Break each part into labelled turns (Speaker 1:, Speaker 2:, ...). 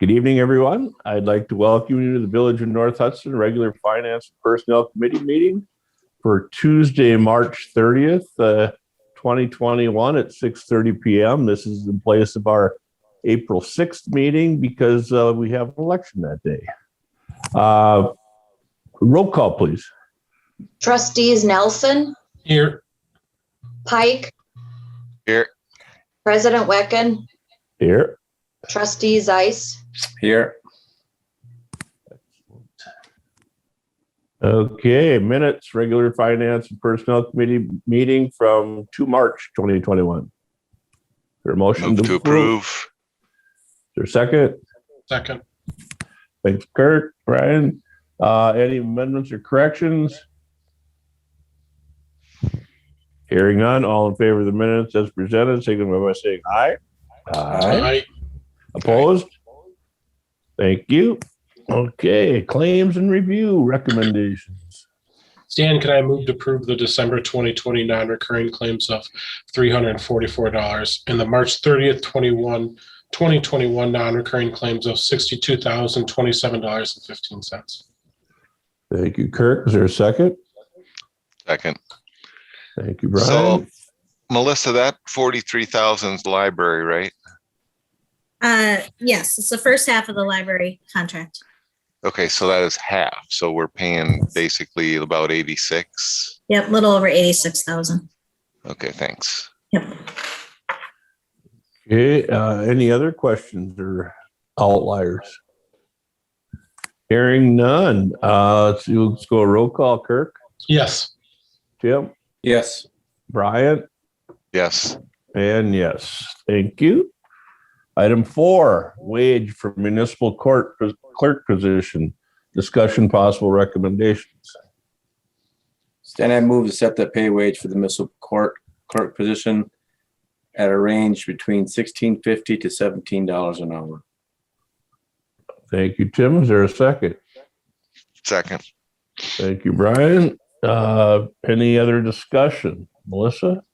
Speaker 1: Good evening, everyone. I'd like to welcome you to the Village of North Hudson Regular Finance and Personnel Committee meeting for Tuesday, March 30th, uh, 2021 at 6:30 PM. This is in place of our April 6th meeting because uh, we have an election that day. Uh, Roll call, please.
Speaker 2: Trustees Nelson,
Speaker 3: Here.
Speaker 2: Pike.
Speaker 4: Here.
Speaker 2: President Wecken,
Speaker 1: Here.
Speaker 2: trustee Zeiss,
Speaker 3: Here.
Speaker 1: Okay, minutes, regular finance and personnel committee meeting from 2 March 2021. Your motion
Speaker 4: Move to approve.
Speaker 1: Your second,
Speaker 3: Second.
Speaker 1: thanks Kurt, Brian. Uh, any amendments or corrections? Hearing none, all in favor of the minutes as presented, signify by saying aye.
Speaker 3: Aye.
Speaker 1: Opposed? Thank you. Okay, claims and review recommendations.
Speaker 3: Stan, can I move to approve the December 2020 non-recurring claims of $344 and the March 30th, 21, 2021 non-recurring claims of $62,027.15?
Speaker 1: Thank you, Kirk. Is there a second?
Speaker 4: Second.
Speaker 1: Thank you,
Speaker 4: So
Speaker 1: Brian.
Speaker 4: Melissa, that forty-three thousand's library, right?
Speaker 5: Uh, yes, it's the first half of the library contract.
Speaker 4: Okay, so that is half. So we're paying basically about eighty-six.
Speaker 5: Yep, little over eighty-six thousand.
Speaker 4: Okay, thanks.
Speaker 5: Yep.
Speaker 1: Okay, uh, any other questions or outliers? Hearing none. Uh, let's, do- let's go roll call, Kirk,
Speaker 3: Yes.
Speaker 1: Jim,
Speaker 3: Yes.
Speaker 1: Brian,
Speaker 4: Yes,
Speaker 1: and yes, thank you. Item four, wage for municipal court clerk position, discussion possible recommendations.
Speaker 6: Stan, I move to set the pay wage for the municipal court clerk position at a range between sixteen fifty to seventeen dollars an hour.
Speaker 1: Thank you, Tim. Is there a second?
Speaker 4: second.
Speaker 1: Thank you, Brian. Uh, any other discussion? Melissa?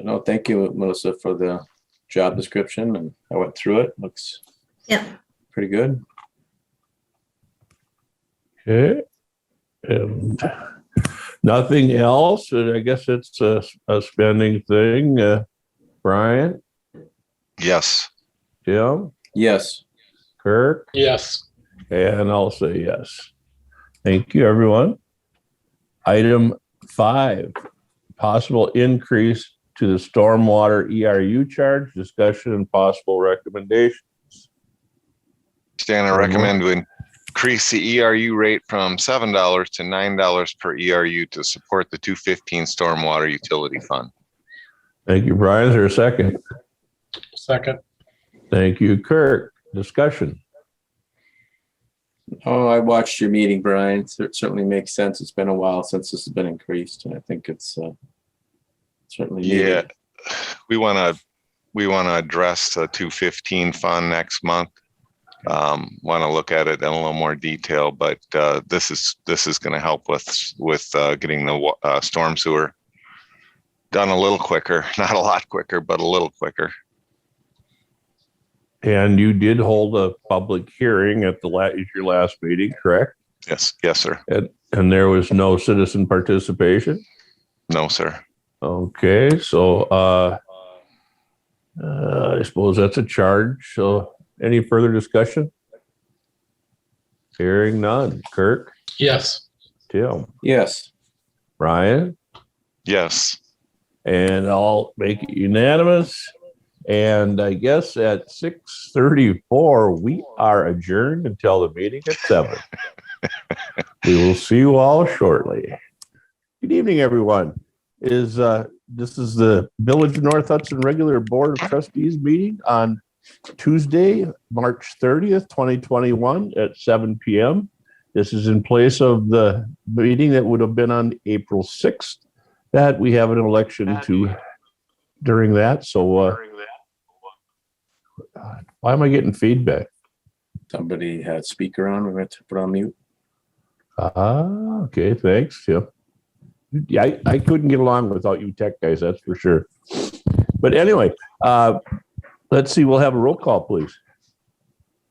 Speaker 6: No, thank you, Melissa, for the job description and I went through it. Looks
Speaker 5: Yep.
Speaker 6: pretty good.
Speaker 1: Okay. And nothing else. And I guess it's a, a spending thing. Uh, Brian,
Speaker 4: Yes,
Speaker 1: Jim,
Speaker 6: Yes,
Speaker 1: Kirk,
Speaker 3: Yes.
Speaker 1: And I'll say yes. Thank you, everyone. Item five, possible increase to the stormwater ERU charge, discussion and possible recommendation.
Speaker 4: Stan, I recommend we increase the ERU rate from seven dollars to nine dollars per ERU to support the two fifteen stormwater utility fund.
Speaker 1: Thank you, Brian. Is there a second?
Speaker 3: Second.
Speaker 1: Thank you, Kirk. Discussion.
Speaker 6: oh, I watched your meeting, Brian. Cer- Certainly makes sense. It's been a while since this has been increased and I think it's uh, certainly
Speaker 4: Yeah,
Speaker 6: needed.
Speaker 4: we want to, we want to address the two fifteen fund next month. Um, want to look at it in a little more detail, but, uh, this is, this is going to help with, with, uh, getting the, wa- uh, storm sewer done a little quicker, not a lot quicker, but a little quicker.
Speaker 1: And you did hold a public hearing at the la, at your last meeting, correct?
Speaker 4: Yes, yes, sir.
Speaker 1: And there was no citizen participation?
Speaker 4: No, sir.
Speaker 1: Okay, so uh, uh, I suppose that's a charge. So any further discussion? Hearing none. Kirk,
Speaker 3: Yes.
Speaker 1: Tim,
Speaker 6: Yes,
Speaker 1: Ryan,
Speaker 4: Yes.
Speaker 1: and I'll make it unanimous. And I guess at six thirty-four, we are adjourned until the meeting at seven. We will see you all shortly. Good evening, everyone. Is, uh, this is the Village of North Hudson Regular Board of Trustees meeting on Tuesday, March thirtieth, twenty twenty-one at seven PM. This is in place of the meeting that would have been on April sixth that we have an election to during that, so, uh, why am I getting feedback?
Speaker 6: somebody had speaker on. We went to put on mute.
Speaker 1: Ah, okay, thanks, Tim. Yeah, I, I couldn't get along without you tech guys, that's for sure. But anyway, uh, let's see, we'll have a roll call, please.